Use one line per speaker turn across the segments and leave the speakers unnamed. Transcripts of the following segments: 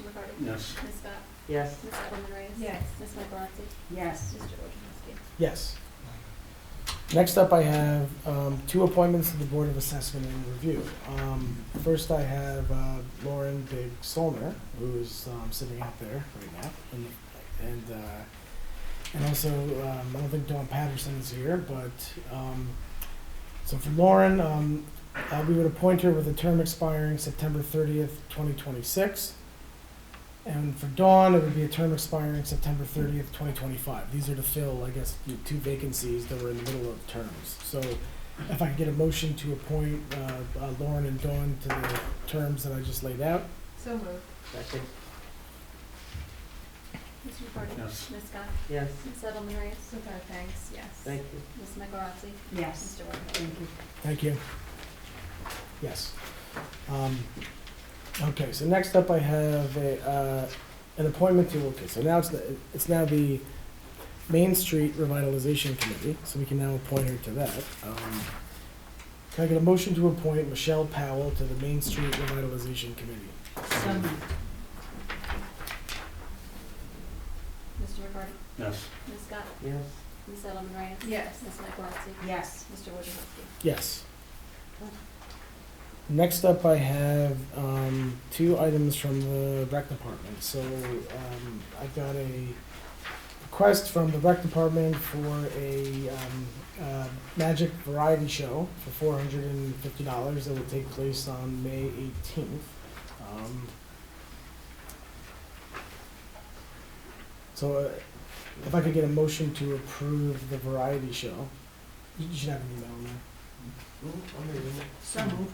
McCarty?
Yes.
Ms. Scott?
Yes.
Ms. Edelman Reyes?
Yes.
Ms. Michaelozzi?
Yes.
Mr. Wojciechowski?
Yes. Next up, I have um, two appointments to the Board of Assessment and Review. Um, First, I have uh, Lauren Big Solner, who is um, sitting out there right now. And, and, uh, and also, um, I don't think Dawn Patterson is here, but, um, so for Lauren, um, uh, we would appoint her with a term expiring September 30th, 2026. And for Dawn, it would be a term expiring September thirtieth, twenty twenty-five. These are to fill, I guess, the two vacancies that were in the middle of terms. So if I could get a motion to appoint uh, uh, Lauren and Dawn to the terms that I just laid out?
So moved.
Second.
Mr. McCarty?
Yes.
Ms. Scott?
Yes.
Ms. Edelman Reyes?
With our thanks.
Yes.
Thank you.
Ms. Michaelozzi?
Yes.
Mr. Wojciechowski?
Thank you.
Thank you. Yes. Um, Okay, so next up I have a, uh, an appointment to, okay, so now it's, the- it's now the Main Street Revitalization Committee, so we can now appoint her to that. Um, Can I get a motion to appoint Michelle Powell to the Main Street Revitalization Committee?
So moved.
Mr. McCarty?
Yes.
Ms. Scott?
Yes.
Ms. Edelman Reyes?
Yes.
Ms. Michaelozzi?
Yes.
Mr. Wojciechowski?
Yes. Next up, I have um, two items from the rec department. So um, I got a request from the rec department for a um, uh, magic variety show for four hundred and fifty dollars that will take place on May eighteenth. Um, so uh, if I could get a motion to approve the variety show, you you should have an email on that.
So moved.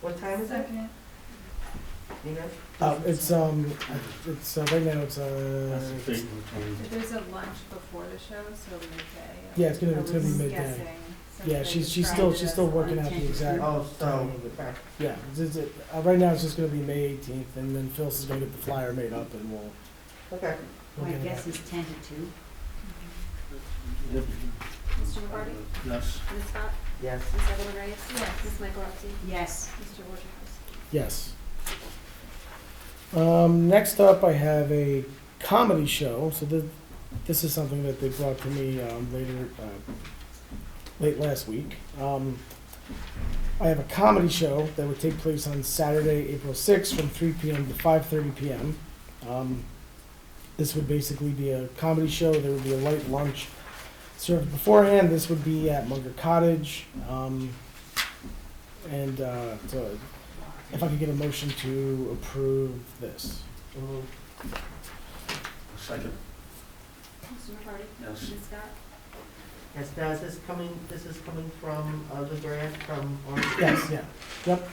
What time is it?
Second.
You know?
Oh, it's, um, it's, uh, right now, it's,
That's
uh,
the thing with twenty-
If there's a lunch before the show, so midday.
yeah, it's gonna, it's gonna be
I was
midday.
guessing, since
Yeah,
they
she's, she's
described
still,
it
she's
as
still
lunch.
working out the exact,
Oh, so.
yeah, it's, it's, uh, right now, it's just gonna be May eighteenth, and then Phyllis is gonna get the flyer made up, and we'll,
Okay.
we'll
My
get it out.
guess is ten to two.
Mr. McCarty?
Yes.
Ms. Scott?
Yes.
Ms. Edelman Reyes?
Yes.
Ms. Michaelozzi?
Yes,
Mr. Wojciechowski?
Yes. Um, next up, I have a comedy show. So the, this is something that they brought to me um, later, uh, late last week. Um, I have a comedy show that would take place on Saturday, April 6th from 3 p.m. to 5.30 p.m. Um, this would basically be a comedy show. There would be a light lunch served beforehand. This would be at Munger Cottage. Um, and uh, so if I could get a motion to approve this.
Second.
Mr. McCarty?
Yes.
Ms. Scott?
Yes, now is this coming, this is coming from, uh, the grant from Orange?
Yes, yeah, yep.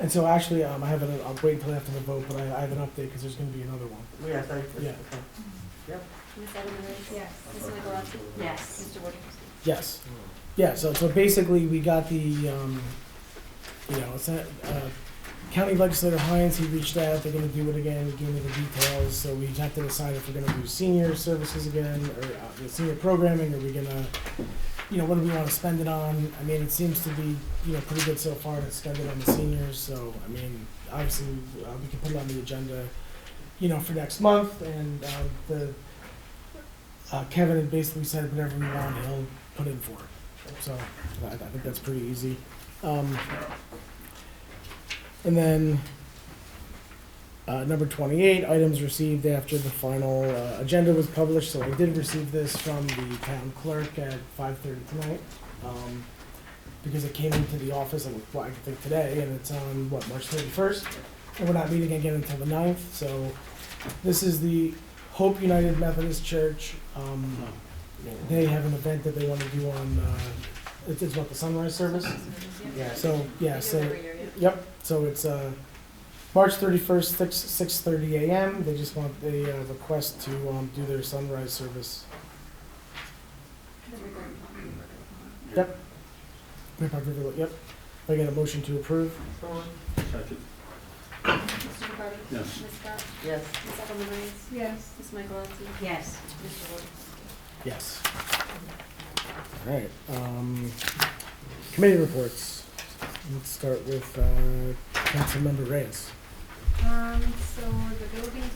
And so actually, um, I have an, I'll wait until after the vote, but I, I have an update because there's gonna be another one.
Yes, I,
Yeah.
okay.
Ms. Edelman Reyes?
Yes.
Ms. Michaelozzi?
yes.
Mr. Wojciechowski?
Yes, yeah, so, so basically, we got the, um, you know, it's, not- uh, County Legislator Hines, he reached out, they're gonna do it again, give me the details, so we have to decide if we're gonna do senior services again, or, uh, the senior programming, are we gonna, you know, what do we wanna spend it on? I mean, it seems to be, you know, pretty good so far to spend it on the seniors, so, I mean, obviously, uh, we can put it on the agenda, you know, for next month, and, um, the, uh, Kevin had basically said whatever we want, he'll put in for it. So I, I think that's pretty easy. Um, and then uh, number 28, items received after the final uh, agenda was published. So I did receive this from the town clerk at 5:30 tonight um, because it came into the office and well, I think today, and it's on what March 31st, and we're not meeting again until the 9th. So this is the Hope United Methodist Church. Um,
Mm.
they have an event that they want to do on, uh, it's, it's what, the sunrise service?
Yes.
So,
They do
yeah,
it
so,
every year, yeah.
yep, so it's, uh, March thirty-first, six, six thirty AM, they just want, they, uh, request to, um, do their sunrise service.
That's regarding Tom.
Yep. Right by River- Yep, I get a motion to approve?
So moved.
Second.
Mr. McCarty?
Yes.
Ms. Scott?
Yes.
Ms. Edelman Reyes?
Yes.
Ms. Michaelozzi?
yes.
Mr. Wojciechowski?
Yes. All right, um, committee reports, let's start with, uh, Councilmember Reyes.
Um, so the